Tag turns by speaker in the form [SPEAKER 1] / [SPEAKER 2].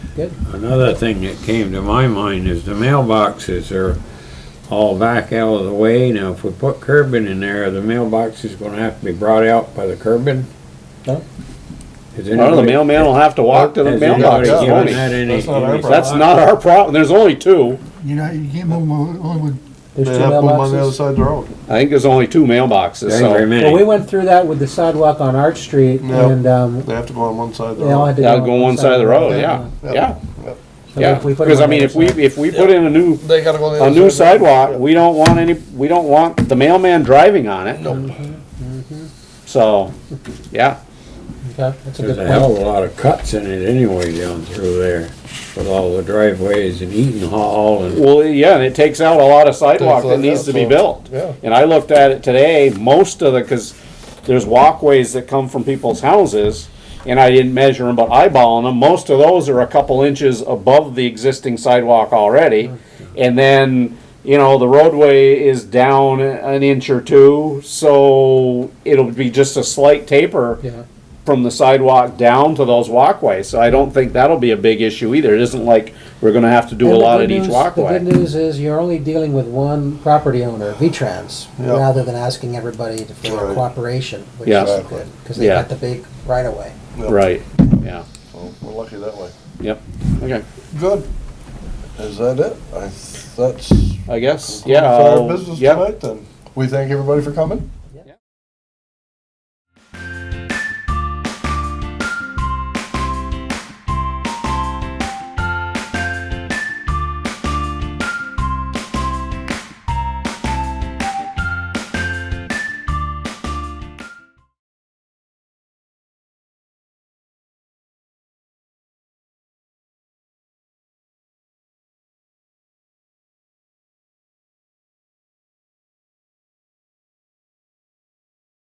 [SPEAKER 1] Good.
[SPEAKER 2] Another thing that came to my mind is the mailboxes are all back out of the way. Now, if we put curbing in there, the mailbox is gonna have to be brought out by the curbing?
[SPEAKER 1] No.
[SPEAKER 2] Is
[SPEAKER 3] Well, the
[SPEAKER 2] anybody-
[SPEAKER 3] mailman will have to walk to the
[SPEAKER 2] has
[SPEAKER 3] mailbox,
[SPEAKER 2] anybody
[SPEAKER 1] Yeah.
[SPEAKER 2] given
[SPEAKER 3] won't he?
[SPEAKER 2] that any-
[SPEAKER 4] That's not our
[SPEAKER 2] any
[SPEAKER 4] problem.
[SPEAKER 3] That's
[SPEAKER 2] thought?
[SPEAKER 3] not our problem, there's only two.
[SPEAKER 5] You know, you can't move 'em only with,
[SPEAKER 1] There's two
[SPEAKER 4] They have them on the other
[SPEAKER 1] mailboxes.
[SPEAKER 4] side of the road.
[SPEAKER 3] I think there's only two mailboxes,
[SPEAKER 2] There ain't very
[SPEAKER 3] so
[SPEAKER 1] Well, we
[SPEAKER 2] many.
[SPEAKER 1] went through that with the sidewalk on Arch Street
[SPEAKER 4] No.
[SPEAKER 1] and, um,
[SPEAKER 4] They have to go on one side of the
[SPEAKER 1] they all
[SPEAKER 4] road.
[SPEAKER 1] had to go.
[SPEAKER 3] that'll go one side of the road, yeah, yeah,
[SPEAKER 1] So
[SPEAKER 3] yeah.
[SPEAKER 1] if we put it
[SPEAKER 3] Because I
[SPEAKER 1] on the
[SPEAKER 3] mean,
[SPEAKER 1] other
[SPEAKER 3] if we,
[SPEAKER 1] side-
[SPEAKER 3] if we put in a new,
[SPEAKER 4] They gotta go on the
[SPEAKER 3] a
[SPEAKER 4] other
[SPEAKER 3] new
[SPEAKER 4] side of the road.
[SPEAKER 3] sidewalk, we don't want any, we don't want the mailman driving on it. Nope. So, yeah,
[SPEAKER 1] Okay, that's a
[SPEAKER 2] There's a
[SPEAKER 1] good
[SPEAKER 2] hell
[SPEAKER 1] point.
[SPEAKER 2] of a lot of cuts in it anyway down through there with all the driveways and Eaton Hall and
[SPEAKER 3] well, yeah, and it takes out a lot of sidewalk
[SPEAKER 4] Takes
[SPEAKER 3] that
[SPEAKER 4] that
[SPEAKER 3] needs
[SPEAKER 4] out,
[SPEAKER 3] to be
[SPEAKER 4] so-
[SPEAKER 3] built.
[SPEAKER 4] Yeah.
[SPEAKER 3] And I looked at it today, most of the, because there's walkways that come from people's houses, and I didn't measure them, but eyeballing them, most of those are a couple inches above the existing sidewalk already. And then, you know, the roadway is down an inch or two, so it'll be just a slight taper
[SPEAKER 1] Yeah.
[SPEAKER 3] from the sidewalk down to those walkways. So I don't think that'll be a big issue either. It isn't like we're gonna have to do a
[SPEAKER 1] And the
[SPEAKER 3] lot
[SPEAKER 1] good
[SPEAKER 3] at
[SPEAKER 1] news-
[SPEAKER 3] each walkway.
[SPEAKER 1] The good news is you're only dealing with one property owner, V-Trans,
[SPEAKER 4] Yeah.
[SPEAKER 1] rather than asking everybody to- for
[SPEAKER 4] Right.
[SPEAKER 1] cooperation, which
[SPEAKER 3] Yeah.
[SPEAKER 1] is good, because they
[SPEAKER 3] Yeah.
[SPEAKER 1] got the big right-of-way.
[SPEAKER 4] Yeah.
[SPEAKER 3] Right, yeah,
[SPEAKER 4] So We're lucky that way.
[SPEAKER 3] yep, okay,
[SPEAKER 4] Good. Is that it? I, that's.
[SPEAKER 3] I guess,
[SPEAKER 4] concludes
[SPEAKER 3] yeah,
[SPEAKER 4] Our
[SPEAKER 3] I'll-
[SPEAKER 4] business
[SPEAKER 3] yep.
[SPEAKER 4] tonight then. We thank everybody for coming.